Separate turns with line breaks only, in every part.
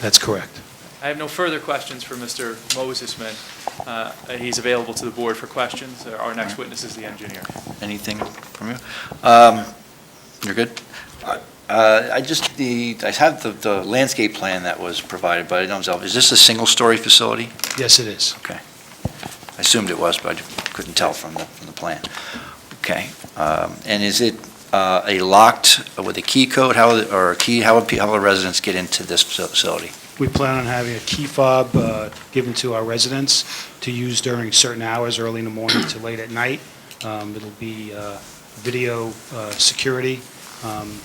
That's correct.
I have no further questions for Mr. Mosesman. Uh, He's available to the board for questions. Our next witness is the engineer.
Anything from you? Um, You're good? Uh, I just, the, I have the- the landscape plan that was provided by Domzell. Is this a single-story facility?
Yes, it is.
I assumed it was, but I couldn't tell from the, from the plan. Okay. Um, And is it uh, a locked, with a key code, how, or a key, how would pe- how will residents get into this facility?
We plan on having a key fob uh, given to our residents to use during certain hours, early in the morning to late at night. Um, It'll be uh, video uh, security. Um,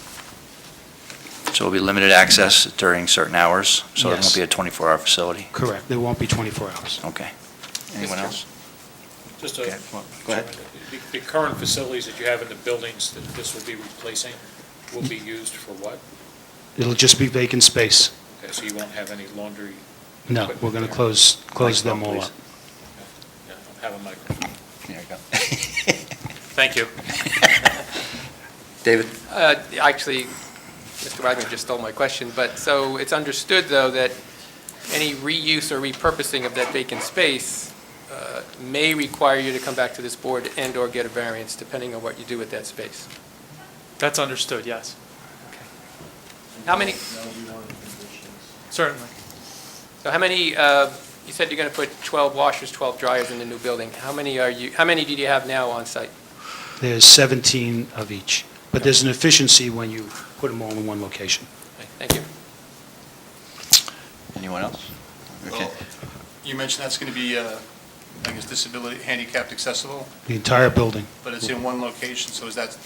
So it'll be limited access during certain hours, so it
Yes.
won't be a 24-hour facility?
Correct, there won't be 24 hours.
Okay. Anyone else?
Just
Okay,
a,
Go ahead.
the- the current facilities that you have in the buildings that this will be replacing will be used for what?
It'll just be vacant space.
Okay, so you won't have any laundry,
No, we're going to close, close them all up.
yeah, don't have a microphone.
There you go.
Thank you.
David?
Uh, Actually, Mr. Wagner just stole my question, but, so it's understood, though, that any reuse or repurposing of that vacant space uh, may require you to come back to this board and/or get a variance, depending on what you do with that space.
That's understood, yes.
How many,
Certainly.
so how many, uh, you said you're going to put 12 washers, 12 dryers in the new building. How many are you, how many do you have now on site?
There's 17 of each, but there's an efficiency when you put them all in one location.
Thank you.
Anyone else? Okay.
Well, You mentioned that's going to be, uh, I guess, disability, handicapped accessible,
The entire building,
but it's in one location, so is that,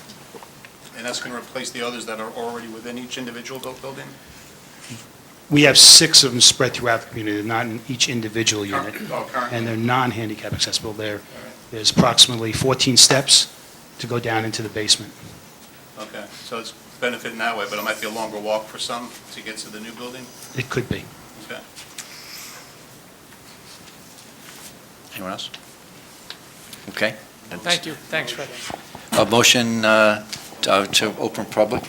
and that's going to replace the others that are already within each individual built building?
we have six of them spread throughout the community, They're not in each individual unit.
Oh, current.
and they're non-handicap accessible. There, there's approximately 14 steps to go down into the basement.
Okay, so it's benefiting that way, but it might be a longer walk for some to get to the new building?
It could be.
Okay.
Anyone else? Okay.
Thank you. Thanks, Fred.
A motion uh, to uh, to open public,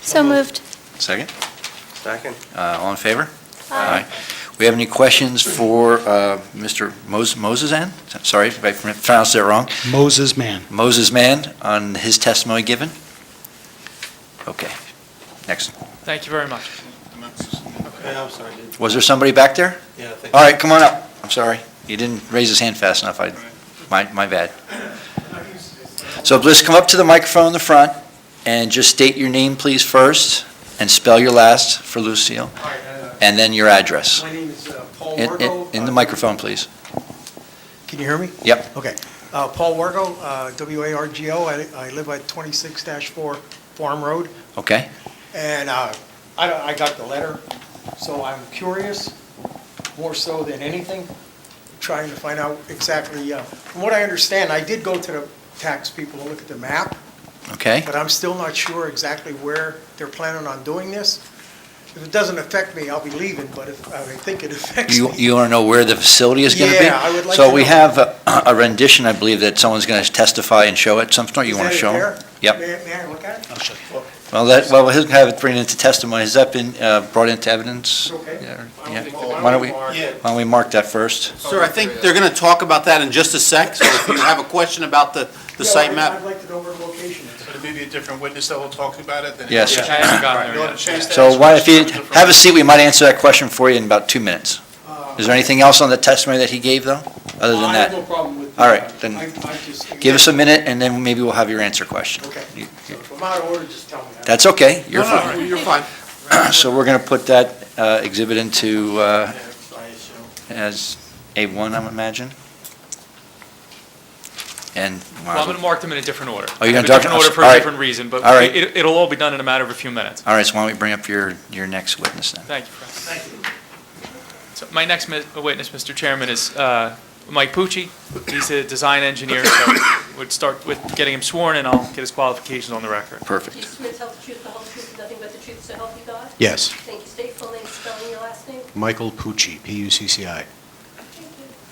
So moved.
second?
Second.
Uh, All in favor? We have any questions for uh, Mr. Mos- Mosesan? Sorry if I pronounced that wrong.
Moses man.
Moses Mann on his testimony given? Okay, next.
Thank you very much.
And that's-
I'm sorry.
Was there somebody back there?
Yeah, thank
All right, come on up. I'm sorry. He didn't raise his hand fast enough. I, my, my bad. So please come up to the microphone in the front and just state your name, please, first, and spell your last for Lucille,
All right, uh,
and then your address.
My name is uh, Paul
In, in-
Wargo.
in the microphone, please.
Can you hear me?
Yep.
Okay. Uh, Paul Wargo, uh, W-A-R-G-O. I I live at 26-4 Farm Road,
Okay?
and uh, I I got the letter, so I'm curious, more so than anything, trying to find out exactly, uh, from what I understand, I did go to the tax people to look at the map,
Okay?
but I'm still not sure exactly where they're planning on doing this. If it doesn't affect me, I'll be leaving, but if, I think it affects
You,
me.
you want to know where the facility is going to be?
Yeah, I would like
So
to
we
know.
have a a rendition, I believe, that someone's going to testify and show at some point. You
Is
want to
that it
show? 'em?
there?
Yep.
May I- may I look at it?
I'll show you.
Well, that, well, he'll have it bring into testimony. Has that been uh, brought into evidence?
Okay.
Yeah, or- yeah. Why don't we, why
Yeah.
don't we mark that first?
Sir, I think they're going to talk about that in just a sec, so if you have a question about the, the
Yeah,
site
I'd-
map.
I'd like to know where the location is.
But it may be a different witness that will talk about it than.
Yes.
I haven't gotten
You
there
ought to
yet.
chase that
So why, if you,
question from a different-
have a seat, we might answer that question for you in about two minutes. Is there anything else on the testimony that he gave, though, other than
Uh, I have no
that?
problem with.
All right, then
I- I just-
Give us a minute, and then maybe we'll have your answer question.
Okay. So If I'm out of order, just tell me.
That's okay, you're
No, no,
fine.
You're fine.
So we're going to put that uh, exhibit into, uh,
I assume.
as A1, I would imagine? And,
Well, I'm going to mark them in a different order.
Oh, you're
I
gonna
have a
talk-
Different order for
all
a
right.
different reason, but
All right.
it- it'll all be done in a matter of a few minutes.
all right, so why don't we bring up your, your next witness then?
Thank you, Fred. Thank you. So my next mi- witness, Mr. Chairman, is uh, Mike Pucci. He's a design engineer, so would start with getting him sworn, and I'll get his qualifications on the record.
Do
Perfect.
you swear to tell the truth, the whole truth, and nothing but the truth, so help you God?
Yes,
Thank you. State full name, spelling your last name.
Michael Pucci, P-U-C-C-I.
Thank you.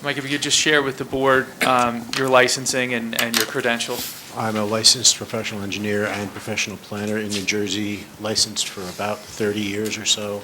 Mike, if you could just share with the board um, your licensing and and your credentials.
I'm a licensed professional engineer and professional planner in New Jersey, licensed for about 30 years or so.